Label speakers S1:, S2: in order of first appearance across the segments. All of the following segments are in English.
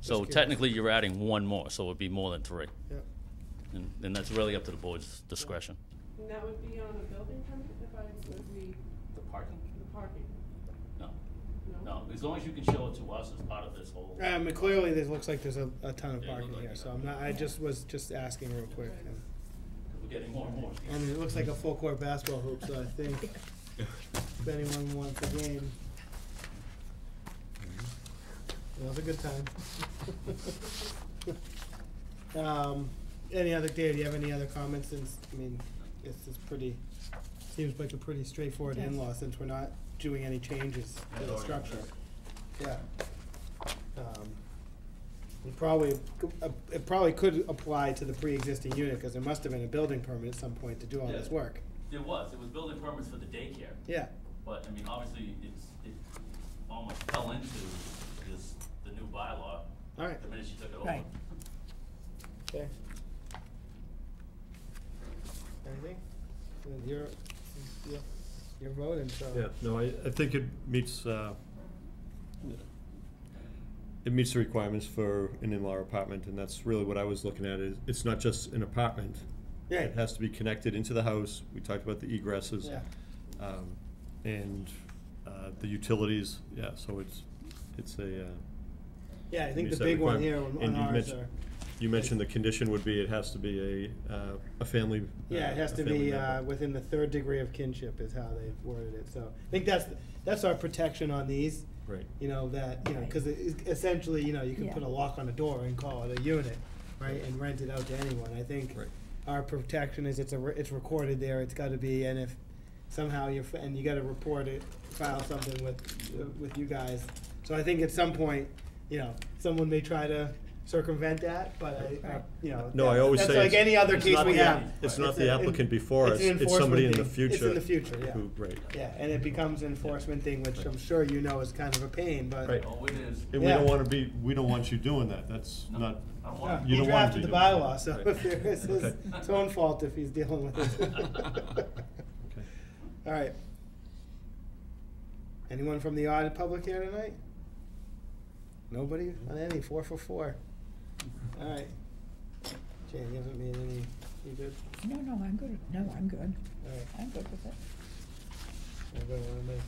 S1: So
S2: curious.
S1: technically, you're adding one more, so it'd be more than three.
S2: Yeah.
S1: And, and that's really up to the board's discretion.
S3: And that would be on a building permit if I would be
S1: The parking?
S3: the parking,
S1: No,
S3: no?
S1: no, as long as you can show it to us as part of this whole.
S2: Um, and clearly, there looks like there's a, a ton of
S1: Yeah, it looked
S2: parking
S1: like
S2: here,
S1: it.
S2: so I'm not, I just was just asking real quick. and-
S1: We're getting more and more.
S2: And it looks like a full court basketball hoop, so I think if anyone wants a game. It was a good time. Um, any other, Dave, do you have any other comments since, I mean, this is pretty, seems like a pretty straightforward
S4: Yes.
S2: in-law since we're not doing any changes to the structure. Yeah. Um, It probably, it probably could apply to the pre-existing unit, cause there must have been a building permit at some point to do all this
S1: Yeah.
S2: work.
S1: There was, it was building permits for the daycare,
S2: Yeah,
S1: but I mean, obviously, it's, it almost fell into this, the new bylaw,
S2: alright,
S1: the minute she took it over.
S4: Right.
S2: okay. Anything? Then You're, you're- you're voting, so.
S5: Yeah, no, I, I think it meets, uh, it meets the requirements for an in-law apartment, and that's really what I was looking at, is it's not just an apartment. It
S2: Yeah,
S5: has to be connected into the house, we talked about the egresses.
S2: yeah,
S5: Um, and, uh, the utilities, yeah, so it's, it's a, uh,
S2: yeah, I think
S5: meets
S2: the
S5: that
S2: big one
S5: requirement.
S2: here on on
S5: And you
S2: ours
S5: mentioned-
S2: are,
S5: you mentioned the condition would be, it has to be a, uh, a family.
S2: yeah,
S5: uh,
S2: it has
S5: a
S2: to
S5: family
S2: be,
S5: member.
S2: uh, within the third degree of kinship is how they worded it, so. I think that's, that's our protection on these.
S5: Right.
S2: you know, that, you know,
S4: Right.
S2: because essentially, you know, you can
S4: Yeah.
S2: put a lock on a door and call it a unit, right, and rent it out to anyone. I think
S5: Right.
S2: our protection is it's a, re- it's recorded there, it's gotta be, and if somehow you're, f- and you gotta report it, file something with, with you guys. So I think at some point, you know, someone may try to circumvent that, but I- I,
S4: Right.
S2: you know.
S5: No,
S2: that-
S5: I always
S2: that's
S5: say
S2: like
S5: it's-
S2: any other
S5: it's
S2: case
S5: not
S2: we
S5: the-
S2: have.
S5: it's not
S2: a-
S5: the applicant before
S2: it's an
S5: us, it's
S2: enforcement
S5: somebody in the
S2: thing. It's in
S5: future
S2: the future, yeah.
S5: Who, right.
S2: Yeah, and it becomes an enforcement thing, which I'm sure you know is kind of a pain, but.
S5: Right.
S1: Oh, it is.
S5: And we
S2: Yeah.
S5: don't wanna be, we don't want you doing that, that's
S1: No,
S5: not,
S1: I don't
S2: Yeah,
S1: want
S5: You
S2: He
S5: don't want to
S2: drafted the
S5: do that.
S2: bylaw, so
S5: Right.
S2: if there is, it's
S5: Okay.
S2: his own fault if he's dealing with it.
S5: okay.
S2: All right. Anyone from the audit public here tonight? Nobody on any, four for four. All right. Jane, you haven't made any, you good?
S4: No, no, I'm good, no, I'm good,
S2: All right,
S4: I'm good with it.
S2: anybody wanna make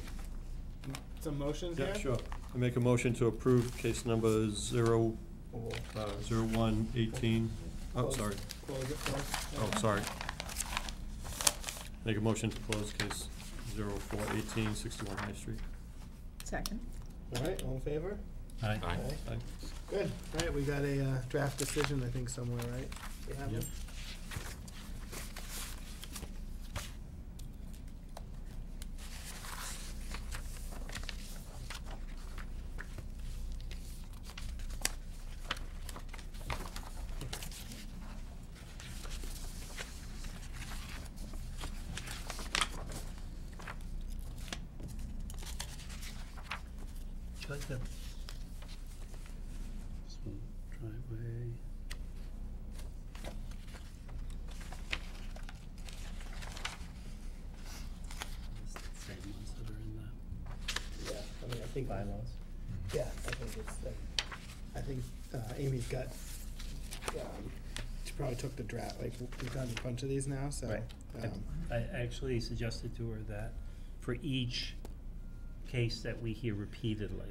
S2: m- some motions here?
S5: Yeah, sure. I make a motion to approve case number zero,
S2: Or we'll
S5: uh, zero one eighteen. Oh,
S2: Close.
S5: sorry.
S2: Close it first.
S5: Oh, sorry. Make a motion to close case zero four eighteen, sixty-one High Street.
S4: Second.
S2: All right, all in favor?
S5: Aye.
S2: Aye. Good. All right, we got a uh, draft decision, I think, somewhere, right? You have
S5: Yep.
S2: it?
S6: Would you like that? This one, driveway. It's the Same ones that are in the
S2: Yeah, I mean, I think.
S6: bylaws.
S2: Yeah, I think it's, um, I think uh, Amy's got, um, she probably took the draft, like, we've done a bunch of these now, so.
S6: Right.
S2: um,
S6: I actually suggested to her that for each case that we hear repeatedly,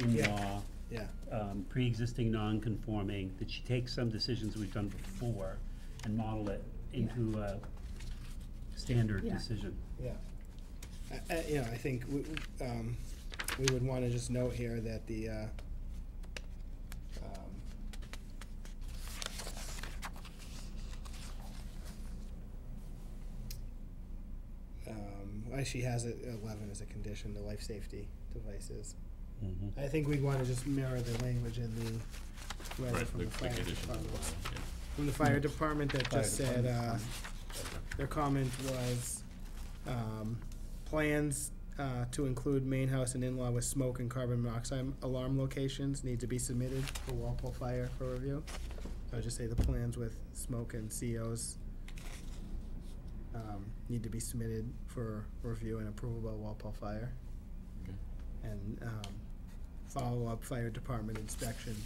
S6: in-law,
S2: Yeah,
S6: um, pre-existing non-conforming, that she take some decisions we've done before and model it into a standard
S4: Yeah.
S6: decision.
S2: yeah. I, I, you know, I think we, we, um, we would wanna just note here that the, uh, um, um, why she has it eleven as a condition, the life safety devices. I think we'd wanna just mirror the language in the, letter
S7: Right,
S2: from
S7: the-
S2: the
S7: the
S2: fire
S7: conditions of the
S2: department.
S7: bylaw, yeah.
S2: From the fire department that
S5: Fire
S2: just said, uh,
S5: department.
S2: their comment was, um, plans, uh, to include main house and in-law with smoke and carbon monoxide alarm locations need to be submitted for Walpole Fire for review. So I just say the plans with smoke and COs, um, need to be submitted for review and approval by Walpole Fire.
S7: Okay.
S2: And, um, follow-up fire department inspection